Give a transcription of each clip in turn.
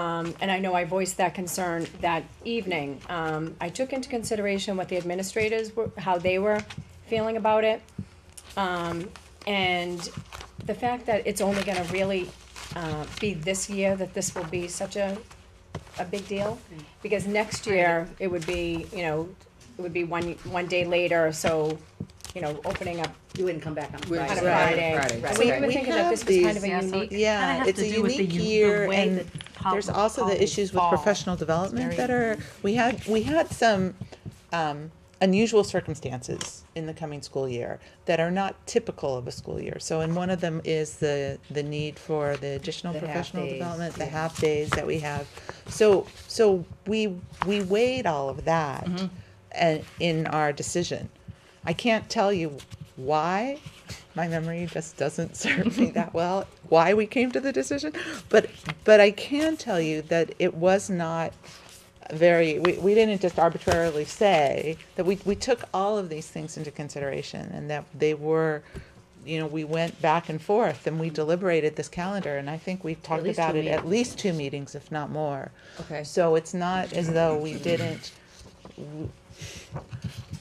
um, and I know I voiced that concern that evening. Um, I took into consideration what the administrators were, how they were feeling about it. Um, and the fact that it's only gonna really, uh, be this year that this will be such a, a big deal. Because next year, it would be, you know, it would be one, one day later, so, you know, opening up You wouldn't come back on We're on a Friday. Friday. Friday, So we right. were We thinking that this was kind of a Yeah, so unique, Kinda Yeah, has it's to a do with the unique u- the year way and that pol- there's also the policies issues with fall. professional development very that are, we had, we had some um, unusual circumstances in the coming school year that are not typical of a school year. So and one of them is the, the need for the additional The half professional days, development, the yeah. half days that we have. So, so we, we weighed all of that Mm-hmm. and in our decision. I can't tell you why, my memory just doesn't serve me that well, why we came to the decision, but, but I can tell you that it was not very, we, we didn't just arbitrarily say, that we, we took all of these things into consideration and that they were, you know, we went back and forth and we deliberated this calendar and I think we talked least about two it at meetings. least two meetings, if not more. Okay. So it's not as though we didn't,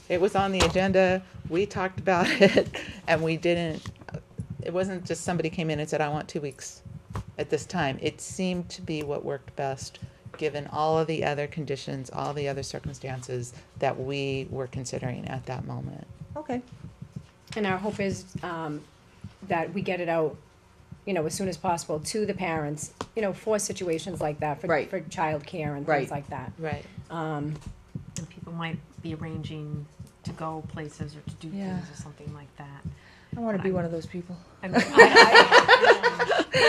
it was on the agenda, we talked about it, and we didn't, it wasn't just somebody came in and said, I want two weeks at this time. It seemed to be what worked best, given all of the other conditions, all the other circumstances that we were considering at that moment. Okay. and our hope is, um, that we get it out, you know, as soon as possible to the parents, you know, for situations like that, for, Right. for childcare and Right. things like that. Right. Um, And people might be arranging to go places or to do Yeah. things or something like that. I want to be one of those people. I mean, I- I-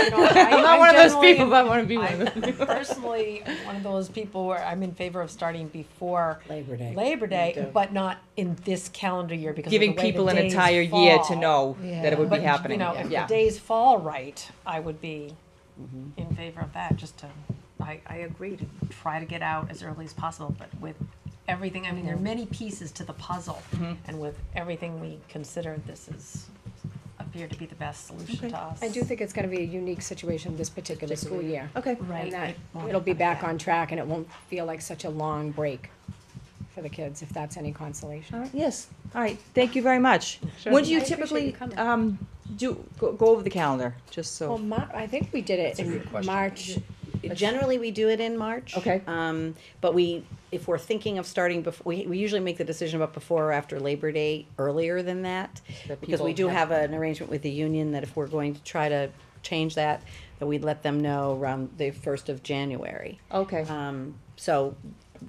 you know, I- I'm I not one of those generally- people, but I want to be one of those. I'm personally one of those people where I'm in favor of starting before Labor Day. Labor Me Day, too. but not in this calendar year because of giving the way the people an days entire year to fall. know that Yeah. it would be But, happening. You know, if yeah. Mm-hmm. the days fall right, I would be in favor of that. Just to, I, I agree to try to get out as early as possible, but with everything, I mean, Mm-hmm. there are many pieces to the puzzle, and with everything we considered, this is appeared to be the best solution to us. I do think it's gonna be a unique situation this particular school year. Okay. right. And that, it won't it'll be happen back again. on track and it won't feel like such a long break for the kids, if that's any All consolation. right. Yes. All right. Thank you very much. Sure. When do you I appreciate you typically coming. um, do go, go over the calendar? Just so. Well, Mar- I think we did it in March, Generally, we do it in March. Okay. Um, but we, if we're thinking of starting before, we, we usually make the decision about before or after Labor Day, earlier than that. That Because we people do have an arrangement with the union that if we're going to try to change that, that we'd let them know around the first of January. okay. Um, so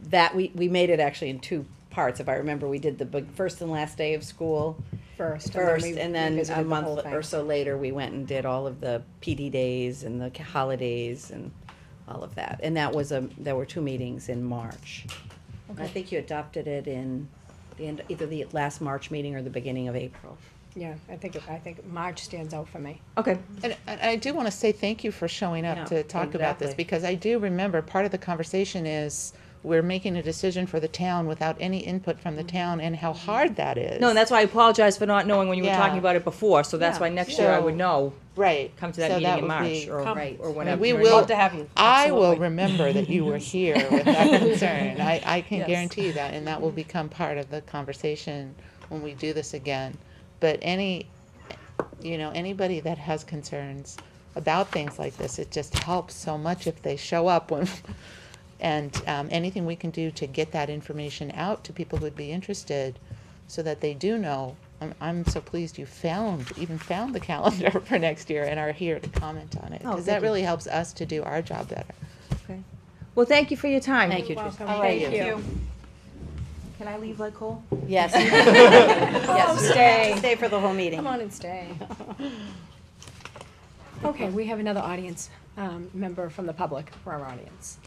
that, we, we made it actually in two parts, if I remember, we did the big, first and last day of school. first. first, we and then revisited a the whole month thing. or so later, we went and did all of the PD days and the ca- holidays and all of that. And that was a, there were two meetings in March. And I think you adopted it in the end, either the last March meeting or the beginning of April. Yeah, I think, it- I think March stands out for me. Okay. And, and I do want to say thank you for showing up Yeah, to talk about this exactly. because I do remember part of the conversation is we're making a decision for the town without any input from the town and how hard that is. Mm-hmm. No, and that's why I apologize for not knowing when you Yeah. were talking about it before. So that's Yeah. why next year I So- would know. right. Come to that So meeting in would March be- or Come. Right. or I mean, whenever. we You're will. Love to have you. I will Absolutely. remember that you were here with that concern. I, I can Yes. guarantee that, and that will become part of the conversation when we do this again. But any, you know, anybody that has concerns about things like this, it just helps so much if they show up when. And um, anything we can do to get that information out to people who'd be interested, so that they do know. I'm, I'm so pleased you found even found the calendar for next year and are here to comment on it Oh, because that thank you. really helps us to do our job better. Okay. Well, thank you for your time. Thank you, Teresa. Welcome. right, Thank you. you. Can I leave like Cole? Yes. Yes. Stay for the whole meeting. Come on and stay. Okay, we have another audience, um, member from the public for our audience.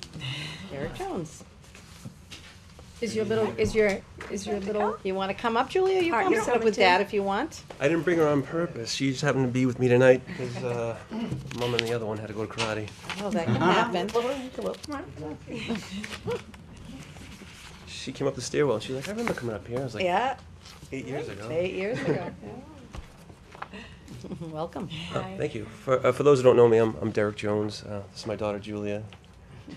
Derek Jones. Is your little, is your, is your little, You want to come up, Julia? You All right, come you're sit up coming with too. Dad if you want. I didn't bring her on purpose. She just happened to be with me tonight because uh, mom and the other one had to go to karate. Oh, that can happen. She came up the stairwell and she's like, I remember coming up here. I was like, Yeah, eight years ago. eight years ago. Welcome. Thank you. For, uh, for those who don't know me, I'm, I'm Derek Jones. Uh, this is my daughter Julia.